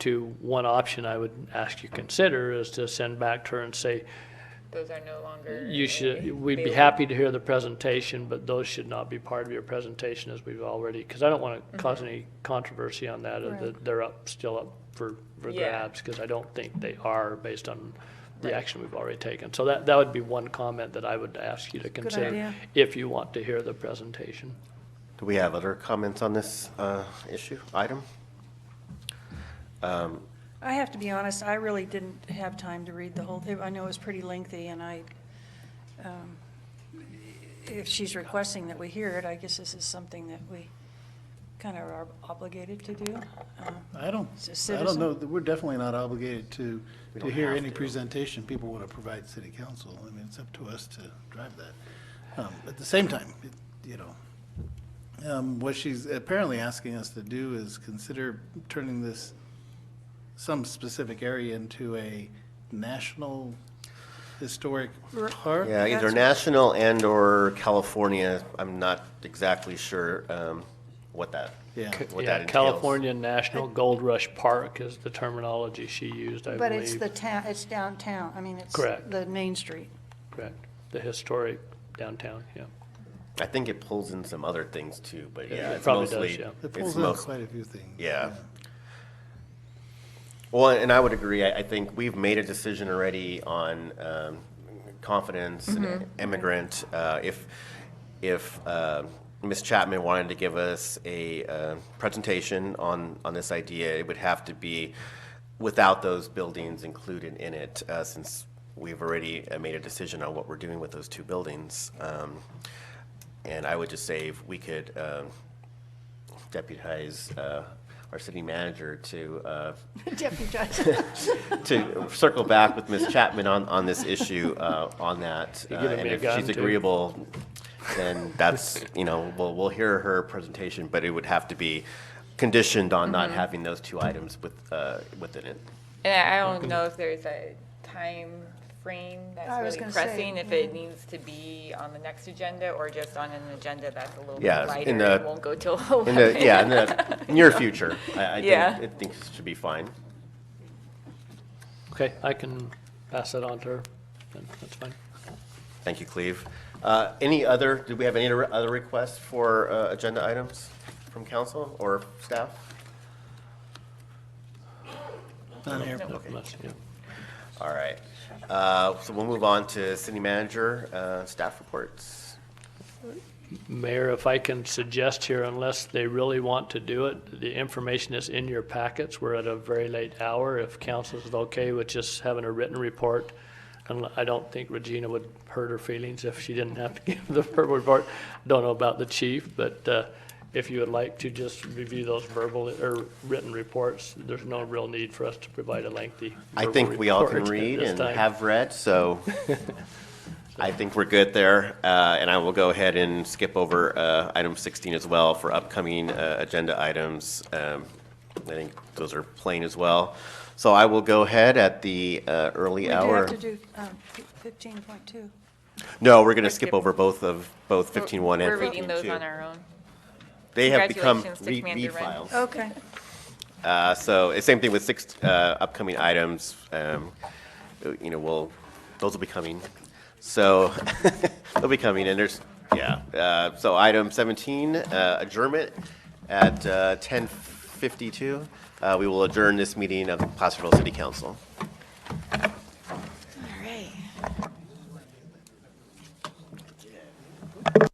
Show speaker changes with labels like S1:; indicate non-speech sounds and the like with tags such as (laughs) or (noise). S1: to, one option I would ask you consider is to send back to her and say,
S2: Those are no longer.
S1: you should, we'd be
S2: available.
S1: happy to hear the presentation, but those should not be part of your presentation as we've already, because I don't want
S3: Mm-hmm.
S1: to cause any controversy on that, or that they're up, still up for, for
S2: Yeah.
S1: grabs, because I don't think they are based on the
S2: Right.
S1: action we've already taken. So that, that would be one comment that I would ask you to consider
S3: idea.
S1: if you want to hear the presentation.
S4: Do we have other comments on this uh, issue, item?
S3: I have to be honest, I really didn't have time to read the whole thing. I know it was pretty lengthy, and I, um, if she's requesting that we hear it, I guess this is something that we kind of are obligated to do. Uh,
S5: I don't,
S3: It's a
S5: I don't know,
S3: citizen.
S5: we're definitely not obligated to,
S4: We
S5: to
S4: don't
S5: hear
S4: have
S5: any
S4: to.
S5: presentation people want to provide city council. I mean, it's up to us to drive that. Um, At the same time, it- you know, um, what she's apparently asking us to do is consider turning this, some specific area into a national historic park.
S4: Yeah, either
S3: That's-
S4: national and/or California, I'm not exactly sure um, what that,
S5: Yeah.
S4: what that
S1: Yeah,
S4: entails.
S1: California National Gold Rush Park is the terminology she used, I believe.
S3: But it's the town, it's downtown, I mean, it's
S1: Correct.
S3: the main (laughs) street.
S1: Correct, the historic downtown, yeah.
S4: I think it pulls in some other things too, but yeah,
S1: it
S4: it's
S1: probably does,
S4: mostly.
S1: yeah.
S5: It
S4: it's
S5: pulls in
S4: most-
S5: quite a few things.
S4: Yeah. Well, and I would agree. I, I think we've made a decision already on um, confidence and immigrant. Uh, if if uh, Ms. Chapman wanted to give us a uh, presentation on on this idea, it would have to be without those buildings included in it, uh, since we've already uh, made a decision on what we're doing with those two buildings. Um, and I would just say if we could. Um, deputize uh, our city manager to, uh,
S3: Deputized.
S4: to circle back with Ms. Chapman on, on this issue, uh, on that.
S1: You giving
S4: Uh,
S1: me a
S4: And if
S1: gun,
S4: she's
S1: too?
S4: agreeable, then that's, you know, we'll, we'll hear her presentation, but it would have to be conditioned on not having those two items with, uh, within it.
S2: And I don't know if there's a time frame
S3: I was
S2: that's really
S3: gonna say, hmm.
S2: pressing, if it needs to be on the next agenda or just on an agenda that's a little bit
S4: Yeah,
S2: lighter
S4: in
S2: and
S4: the-
S2: won't go till (laughs)
S4: In the,
S2: eleven.
S4: yeah, in the near future, I, I think,
S2: Yeah.
S4: I think it should be fine.
S1: Okay, I can pass that on to her, then, that's fine.
S4: Thank you, Cleve. Uh, Any other, do we have any other other requests for uh, agenda items from council or staff?
S5: Down here.
S1: Nope, that's- yeah.
S4: All right. Uh, So we'll move on to city manager, uh, staff reports.
S1: Mayor, if I can suggest here, unless they really want to do it, the information is in your packets. We're at a very late hour. If council is okay with just having a written report, and I don't think Regina would hurt her feelings if she didn't have to (laughs) give the verbal report. Don't know about the chief, but uh, if you would like to just review those verbal or written reports, there's no real need for us to provide a lengthy.
S4: I
S1: verbal
S4: think we all can
S1: report (laughs) at
S4: read
S1: this
S4: and
S1: time.
S4: have read, so
S1: (laughs)
S4: I think we're good there. Uh, And I will go ahead and skip over uh, item 16 as well for upcoming uh, agenda items. Um, I think those are plain as well. So I will go ahead at the uh,
S3: We
S4: early
S3: do
S4: hour.
S3: have to do um, 15.2.
S4: No, we're going to skip
S2: skip-
S4: over both of, both 15-1
S2: We're
S4: and
S2: reading those on
S4: 15-2.
S2: our own.
S4: They have become
S2: Congratulations to
S4: re-
S2: Commander Wren.
S4: e-files.
S3: Okay.
S4: Uh, So, it's same thing with six uh, upcoming items, um, you know, we'll, those will be coming. So, (laughs) they'll be coming, and there's, yeah, Uh, so item 17, uh, adjournment at uh, 10:52. Uh, We will adjourn this meeting of the Placerville City Council.